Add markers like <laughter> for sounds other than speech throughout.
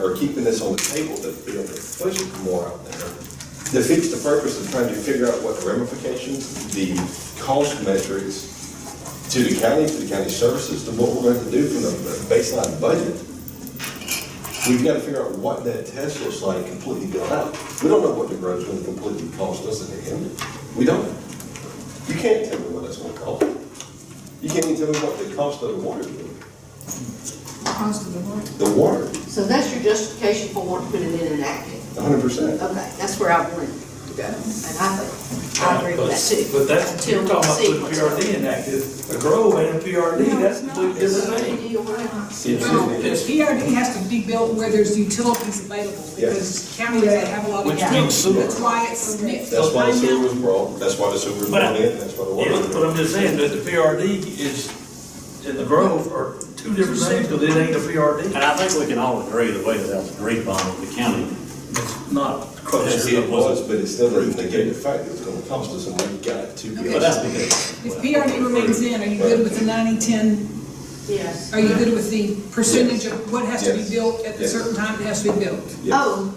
or keeping this on the table to be able to push it more out there defeats the purpose of trying to figure out what the ramifications, the cost metrics to the county, to the county services, to what we're going to do from the baseline budget. We've got to figure out what that Tesla slide completely built out. We don't know what the road's going to completely cost us in the end. We don't. You can't tell me what it's going to cost. You can't even tell me what the cost of the water is. Cost of the water. The water, So that's your justification for wanting to put it in an active? hundred percent. Okay, that's where I wanted to go, and I think, I agree with that too. But that's, you're talking about Until putting the PRD in active, a grow and a PRD, that's a completely different sequence. thing. No, the Yes. PRD E has to be built where there's utilities available, because county doesn't have a lot of Which utilities. means sewer. That's why it's mixed. That's why Right the now, sewer was brought, that's why the sewer was But I- brought in, that's why the water Yeah, was but I'm brought in. just saying, that the PRD is, and the grove are two different things, because it ain't a PRD. And I think we can all agree the way that that was agreed upon with the county. It's not Yes, close. it It was, but it still doesn't negate the fact that it's gonna cost us and we got to be. But that's because. If PRD remains in, are you good with the ninety-ten? Yes. Are you good with the percentage of what has to be Yes. built at the Yes. certain time it has to be built? <laughs> Yes. Oh,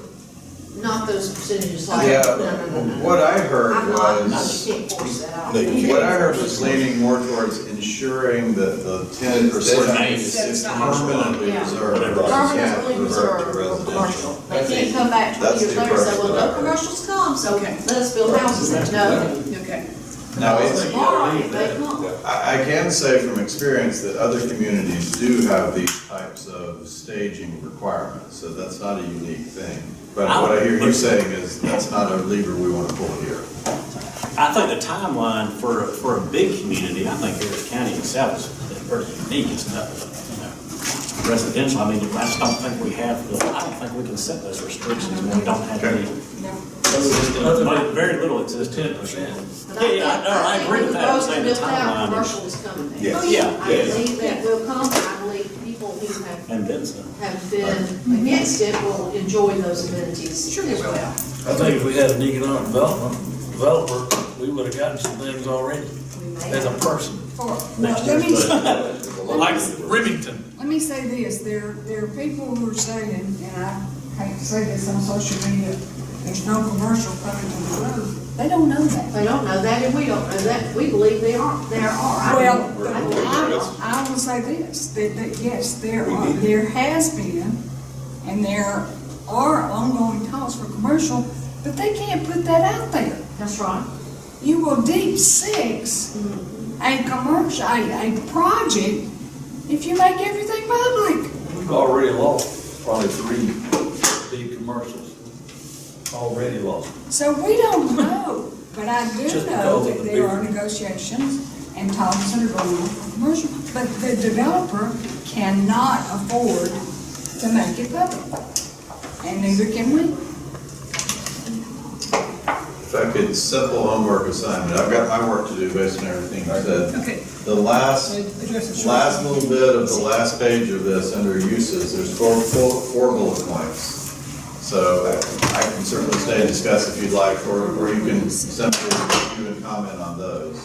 not those percentages like, Yeah, no, no, no, no. what I heard I'm not, no, was, you can't force that out. No, you can't. what I heard was leaning more towards ensuring that the ten percent Remains. is Yeah. permanently reserved. Whatever. Permanently Yeah, reserved to for commercial. residential. They can't come back twenty That's years the later and say, approach well, that I no heard. commercials come, so Okay. let us build houses. No, Okay. Now, it's, tomorrow, if they come. Yeah. I, I can say from experience that other communities do have these types of staging requirements, so that's not a unique thing. But what I hear you saying is, that's not a lever we want to pull here. I think the timeline for, for a big community, I think Harris County itself is pretty unique, it's not, you know, residential, I mean, I just don't think we have, the I don't think we can set those restrictions, when we don't have any, but very little exists. Ten percent. But Yeah, yeah, I- no, I think agree with that. I'm those saying built the out, timeline is- Commercial is coming there. Yes. Oh, yeah, I yeah. believe that will come, and I believe people who have, And then some. have been against it will enjoy those amenities. Sure they will. I think if we had an economic development developer, we would've gotten some things already, as a person. Next let me, year's budget. Like Remington. let me say this, there, there are people who are saying, and I hate to say this on social media, there's no commercial coming to the road. They don't know that. They don't know that, and we don't know that, we believe they are, there are. I- Well, I I, I will say this, that, that, yes, there We are, need it. there has been, and there are ongoing calls for commercial, but they can't put that out there. That's right. you will deep six a commercial, a, a project, if you make everything public. We've already lost probably three big commercials. Already lost. So we <laughs> don't know, but I do Just know because of that the there are bigger- negotiations and talks that are going on for commercial, but the developer cannot afford to make it public. And neither can we. If I could, simple homework assignment, I've got my work to do based on everything you said. Okay. The last, Address it shortly. last little bit of the last page of this, under uses, there's four, four, four bullet points. So I- I can certainly stay and discuss if you'd like, or, or you can simply review and comment on those.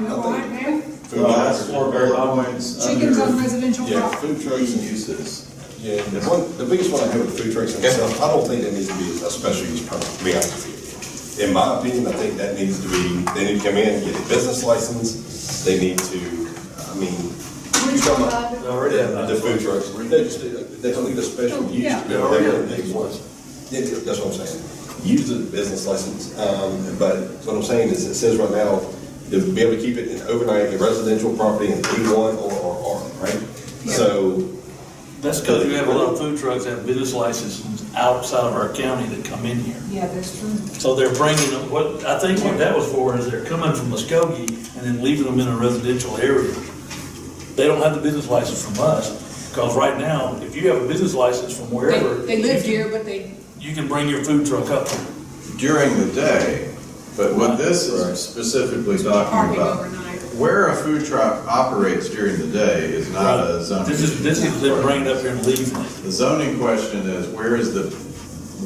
You know what, man? The last four bullet points Chickens on under residential Yeah, property. food trucks and use. uses. Yeah, the one, the biggest one I have with food trucks and stuff, I don't think that needs to be a special use permit, to be honest with you. In my opinion, I think that needs to be, they need to come in, get a business license, they need to, I mean, you come up, Already have. the food trucks, they just, they don't need a special use. Yeah. They don't need one. Yeah, yeah, that's what I'm saying. Use the business license, um, but what I'm saying is, it says right now, to be able to keep it in overnight, in residential property in E one or, or R, right? So, That's because you have a lot of food trucks that have business licenses outside of our county that come in here. Yeah, that's true. So they're bringing them, what, I think what that was for is they're coming from Muskogee and then leaving them in a residential area. They don't have the business license from us, because right now, if you have a business license from wherever. They, they you live can- here, but they, You can bring your food truck up. During the day, but what this is specifically talking Parking about. overnight. Where a food truck operates during the day is not a zoning. This is, this is them bringing it up here and leaving it. The zoning question is, where is the,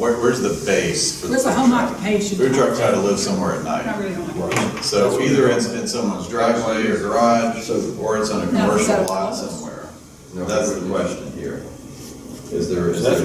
where, where's the base? for the Where's the food home truck? occupation? Food trucks had to live somewhere at I night. really don't like it. So either it's in someone's driveway or garage, or it's on a No, commercial so- lot somewhere. That's the question here. Is there, is That's there